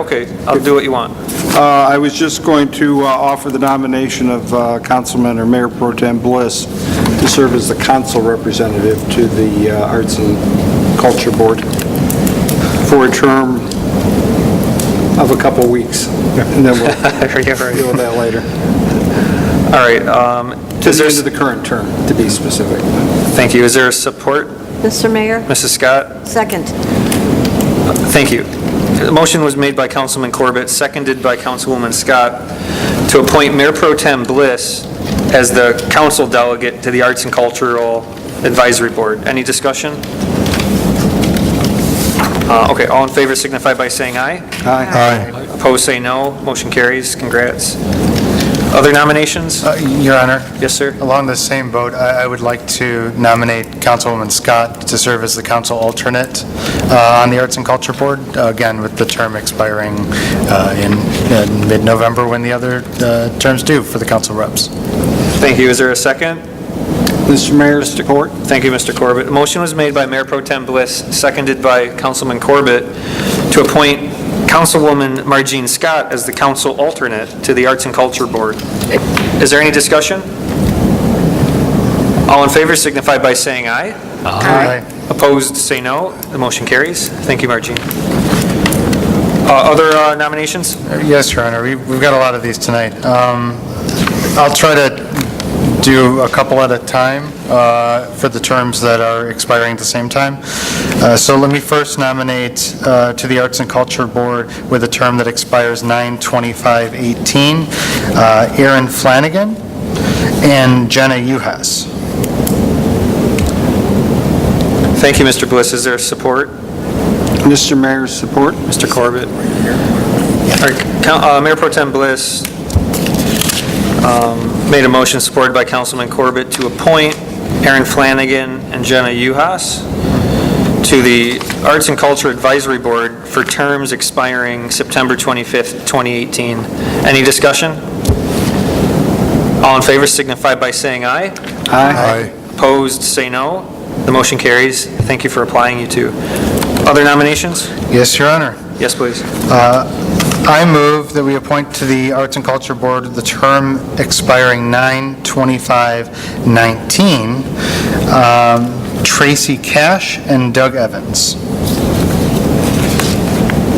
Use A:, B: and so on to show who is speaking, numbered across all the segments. A: Okay, I'll do what you want.
B: Uh, I was just going to uh, offer the nomination of uh, Councilman or Mayor Pro Tem Bliss to serve as the council representative to the uh, Arts and Culture Board for a term of a couple weeks. And then we'll
A: Yeah,
B: deal
A: right.
B: with that later.
A: All right, um,
B: To
A: is
B: the
A: there,
B: end of the current term, to be specific.
A: thank you, is there support?
C: Mr. Mayor,
A: Mrs. Scott?
C: second.
A: Thank you. The motion was made by Councilman Corbett, seconded by Councilwoman Scott, to appoint Mayor Pro Tem Bliss as the council delegate to the Arts and Cultural Advisory Board. Any discussion? Uh, Okay, all in favor signify by saying aye.
B: Aye.
A: Opposed, say no. Motion carries. Congrats. Other nominations?
D: Uh, Your Honor,
A: Yes, sir.
D: along the same boat, I I would like to nominate Councilwoman Scott to serve as the council alternate uh, on the Arts and Culture Board, again, with the term expiring uh, in in mid-November when the other uh, terms do for the council reps.
A: Thank you. Is there a second?
B: Mr. Mayor, support?
A: Thank you, Mr. Corbett. The motion was made by Mayor Pro Tem Bliss, seconded by Councilman Corbett, to appoint Councilwoman Margene Scott as the council alternate to the Arts and Culture Board. Is there any discussion? All in favor signify by saying aye.
D: Aye.
A: Opposed, say no. The motion carries. Thank you, Margene. Uh, Other uh, nominations?
D: Yes, Your Honor, We- we've got a lot of these tonight. Um, I'll try to do a couple at a time uh, for the terms that are expiring at the same time. Uh, So let me first nominate uh, to the Arts and Culture Board with a term that expires 9/25/18, uh, Aaron Flanagan and Jenna Uhas.
A: Thank you, Mr. Bliss. Is there support?
B: Mr. Mayor, support?
A: Mr. Corbett? All right, Coun- uh, Mayor Pro Tem Bliss um, made a motion supported by Councilman Corbett to appoint Aaron Flanagan and Jenna Uhas to the Arts and Culture Advisory Board for terms expiring September 25th, 2018. Any discussion? All in favor signify by saying aye.
B: Aye.
A: Opposed, say no. The motion carries. Thank you for applying, you two. Other nominations?
D: Yes, Your Honor.
A: Yes, please.
D: I move that we appoint to the Arts and Culture Board the term expiring 9/25/19, um, Tracy Cash and Doug Evans.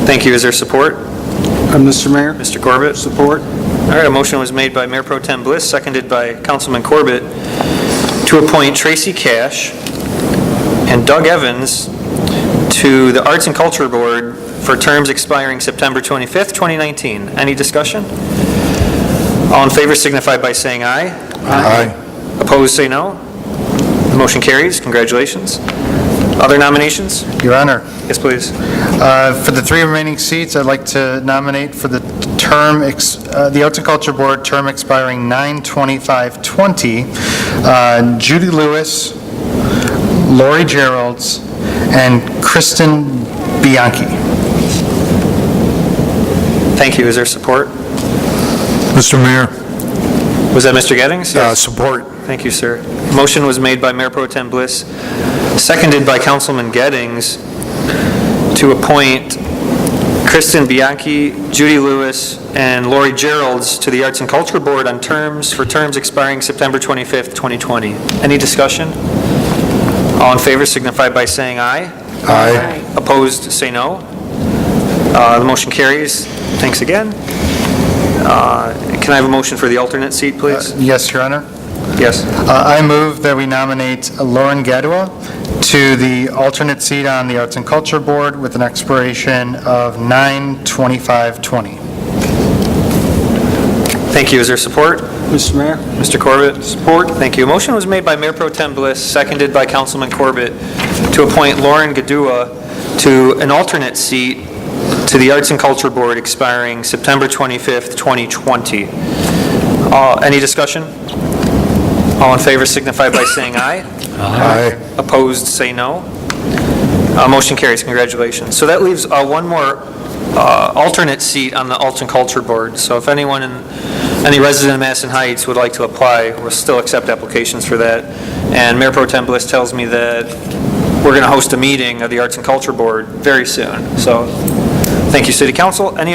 A: Thank you. Is there support?
B: Uh, Mr. Mayor,
A: Mr. Corbett?
B: support?
A: All right, a motion was made by Mayor Pro Tem Bliss, seconded by Councilman Corbett, to appoint Tracy Cash and Doug Evans to the Arts and Culture Board for terms expiring September 25th, 2019. Any discussion? All in favor signify by saying aye. Aye. Opposed, say no. The motion carries. Congratulations. Other nominations?
D: Your Honor,
A: Yes, please.
D: Uh, For the three remaining seats, I'd like to nominate for the term, ex- uh, the Arts and Culture Board, term expiring 9/25/20, uh, Judy Lewis, Lori Gerolds, and Kristen Bianchi.
A: Thank you. Is there support?
E: Mr. Mayor,
A: Was that Mr. Gettings?
E: uh, support.
A: Thank you, sir. Motion was made by Mayor Pro Tem Bliss, seconded by Councilman Gettings, to appoint Kristen Bianchi, Judy Lewis, and Lori Gerolds to the Arts and Culture Board on terms, for terms expiring September 25th, 2020. Any discussion? All in favor signify by saying aye.
E: Aye.
A: Opposed, say no. Uh, The motion carries. Thanks again. Uh, Can I have a motion for the alternate seat, please?
D: Yes, Your Honor?
A: Yes.
D: Uh, I move that we nominate Lauren Gadua to the alternate seat on the Arts and Culture Board with an expiration of 9/25/20.
A: Thank you. Is there support?
B: Mr. Mayor?
A: Mr. Corbett? Support. Thank you. A motion was made by Mayor Pro Tem Bliss, seconded by Councilman Corbett, to appoint Lauren Gadua to an alternate seat to the Arts and Culture Board expiring September 25th, 2020. Uh, Any discussion? All in favor signify by saying aye.
E: Aye.
A: Opposed, say no. Uh, Motion carries, congratulations. So that leaves uh, one more uh, alternate seat on the Arts and Culture Board. So if anyone, in any resident of Madison Heights would like to apply, we'll still accept applications for that. And Mayor Pro Tem Bliss tells me that we're going to host a meeting of the Arts and Culture Board very soon. So, thank you, City Council. Any